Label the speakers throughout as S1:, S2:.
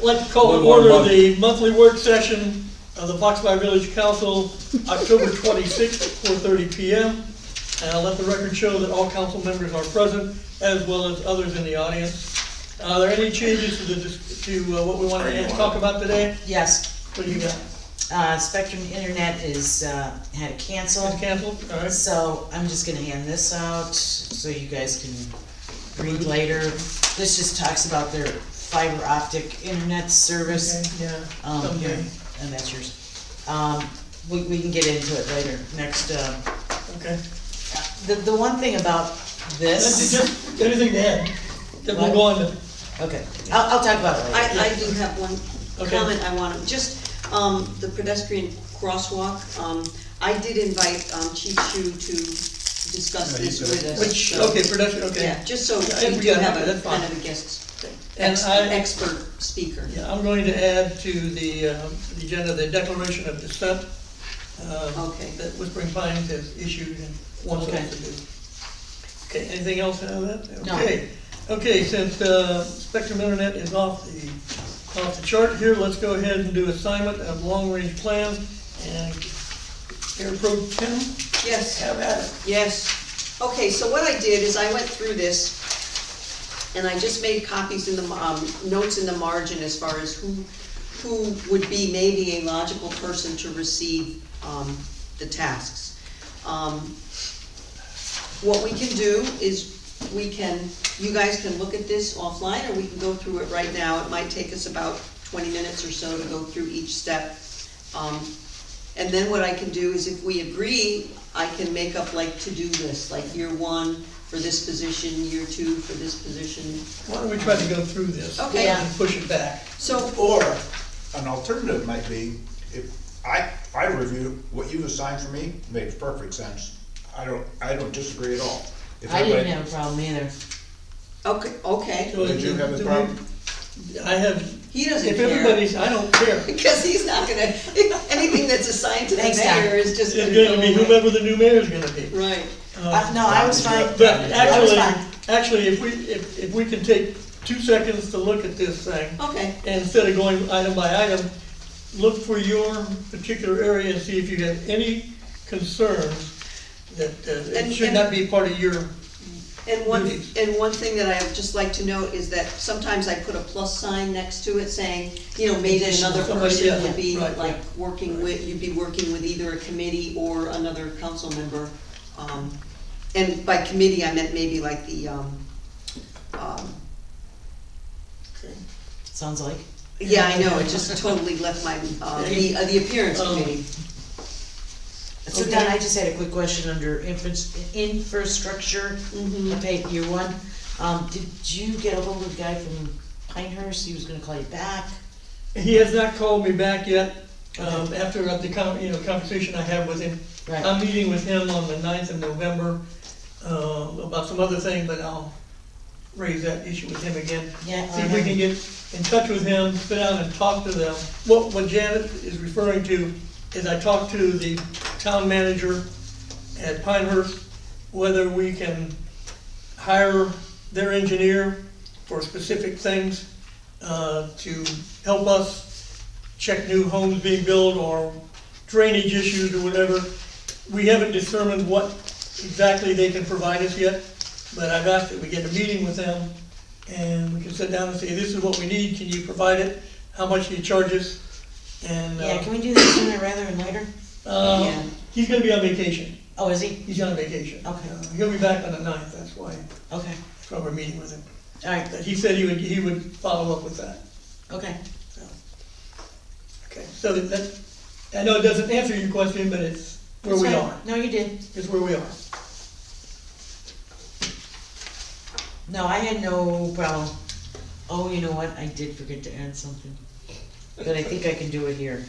S1: Let's call
S2: One
S1: to
S2: more
S1: order
S2: month.
S1: the monthly work session of the Foxby Village Council, October twenty-sixth, four thirty P M. And I'll let the record show that all council members are present, as well as others in the audience. Are there any changes to the, dis- to uh, what we want to talk about today?
S3: Yes,
S1: What do you got?
S3: uh, Spectrum Internet is, uh, had to cancel,
S1: It's canceled, all right?
S3: so I'm just gonna hand this out, so you guys can read later. This just talks about their fiber optic internet
S1: Okay,
S3: service,
S1: Yeah,
S3: um,
S1: someday,
S3: here, and that's yours. Um, we, we can get into it later, next, uh,
S1: okay.
S3: the, the one thing about
S1: That's it,
S3: this,
S1: just anything to add? Then we'll
S3: What?
S1: go on to,
S3: okay, I'll, I'll talk about it later.
S4: I, I do have one
S1: Okay.
S4: comment I want to, just, um, the pedestrian crosswalk, um, I did invite, um, Chief Shu to discuss
S2: Yeah, he's
S4: this with us.
S1: which,
S4: so-
S1: okay, production, okay.
S4: Yeah, just so
S1: Yeah,
S4: we
S1: we
S4: do
S1: got
S4: have
S1: it,
S4: a
S1: that's fine.
S4: kind of a guest,
S1: And
S4: ex-
S1: I-
S4: expert speaker.
S1: Yeah, I'm going to add to the, uh, the agenda, the declaration of dissent. uh,
S4: Okay.
S1: That Whispering Pines has issued and wants
S3: Okay.
S1: us to do. Okay, anything else out of that?
S3: No.
S1: Okay, okay, since, uh, Spectrum Internet is off the, off the chart here, let's go ahead and do assignment of long-range plans and Air Pro Tim,
S4: Yes.
S1: have at it.
S4: Yes. Okay, so what I did is I went through this, and I just made copies in the, um, notes in the margin as far as who, who would be maybe a logical person to receive, um, the tasks. Um, What we can do is, we can, you guys can look at this offline, or we can go through it right now. It might take us about twenty minutes or so to go through each step. Um, and then what I can do is if we agree, I can make up like to-do lists, like year one for this position, year two for this position.
S1: Why don't we try to go through this?
S4: Okay.
S1: And push it back.
S4: So,
S5: Or an alternative might be, if I, I review what you assigned for me, makes perfect sense. I don't, I don't disagree at all. If
S3: I didn't
S5: everybody-
S3: have a problem either.
S4: okay, okay,
S1: So
S5: Did you have a
S1: do we-
S5: problem?
S1: I have,
S4: he doesn't
S1: if
S4: care,
S1: everybody's, I don't care.
S4: because he's not gonna, anything that's assigned to the
S3: Thanks, Doc.
S4: mayor is just gonna
S1: It's gonna be
S4: go away.
S1: whoever the new mayor's gonna be.
S4: Right,
S3: Uh, no, I was fine,
S1: But
S3: I was
S1: actually,
S3: fine,
S1: actually, if we, if, if we can take two seconds to look at this thing,
S4: okay,
S1: and instead of going item by item, look for your particular area and see if you have any concerns that, uh, it
S4: And-
S1: should
S4: and-
S1: not be part of your,
S4: and one,
S1: Duties.
S4: and one thing that I would just like to note is that sometimes I put a plus sign next to it saying, you know, maybe another
S1: Somebody, Oh, yeah,
S4: person would be
S1: right,
S4: like
S1: yeah.
S4: working with, you'd be working with either a committee or another council member. Um, And by committee, I meant maybe like the, um, um,
S3: sounds like.
S4: yeah, I know, it just totally left my, uh, the, uh, the appearance
S1: Um,
S4: committee.
S3: So Don, I just had a quick question under infras- infrastructure,
S4: Mhm.
S3: okay, year one. Um, did you get a hold of the guy from Pinehurst? He was gonna call you back.
S1: he has not called me back yet, um, after the con, you know, conversation I had with him.
S3: Right.
S1: I'm meeting with him on the 9th of November, uh, about some other thing, but I'll raise that issue with him again.
S3: Yeah,
S1: See if we can get in touch with him, sit down and talk to them. What, what Janet is referring to is I talked to the town manager at Pinehurst, whether we can hire their engineer for specific things, uh, to help us check new homes being built or drainage issues or whatever. We haven't determined what exactly they can provide us yet, but I've asked that we get a meeting with them and we can sit down and say, this is what we need, can you provide it? How much do you charge us? And,
S3: Yeah,
S1: uh,
S3: can we do this sooner rather than later?
S1: uh,
S4: Yeah.
S1: he's gonna be on vacation,
S3: Oh, is he?
S1: he's on vacation.
S3: Okay.
S1: Uh, He'll be back on the ninth, that's why,
S3: Okay,
S1: that's why we're meeting with him.
S3: alright,
S1: But he said he would, he would follow up with that,
S3: okay.
S1: so. Okay, so that, that- I know it doesn't answer your question, but it's where
S3: That's
S1: we
S3: fine.
S1: are,
S3: No, you did.
S1: it's where we are.
S3: No, I had no problem. Oh, you know what? I did forget to add something. But I think I can do it here.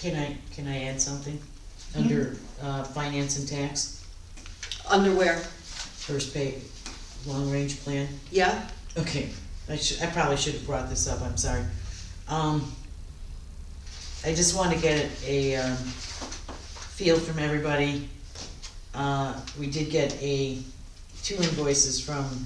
S3: Can I, can I add something? Under, uh, finance and tax,
S4: Underwear,
S3: first pay, long-range plan?
S4: yeah,
S3: Okay, I should, I probably should have brought this up, I'm sorry. Um, I just wanna get a, um, feel from everybody. Uh, we did get a, two invoices from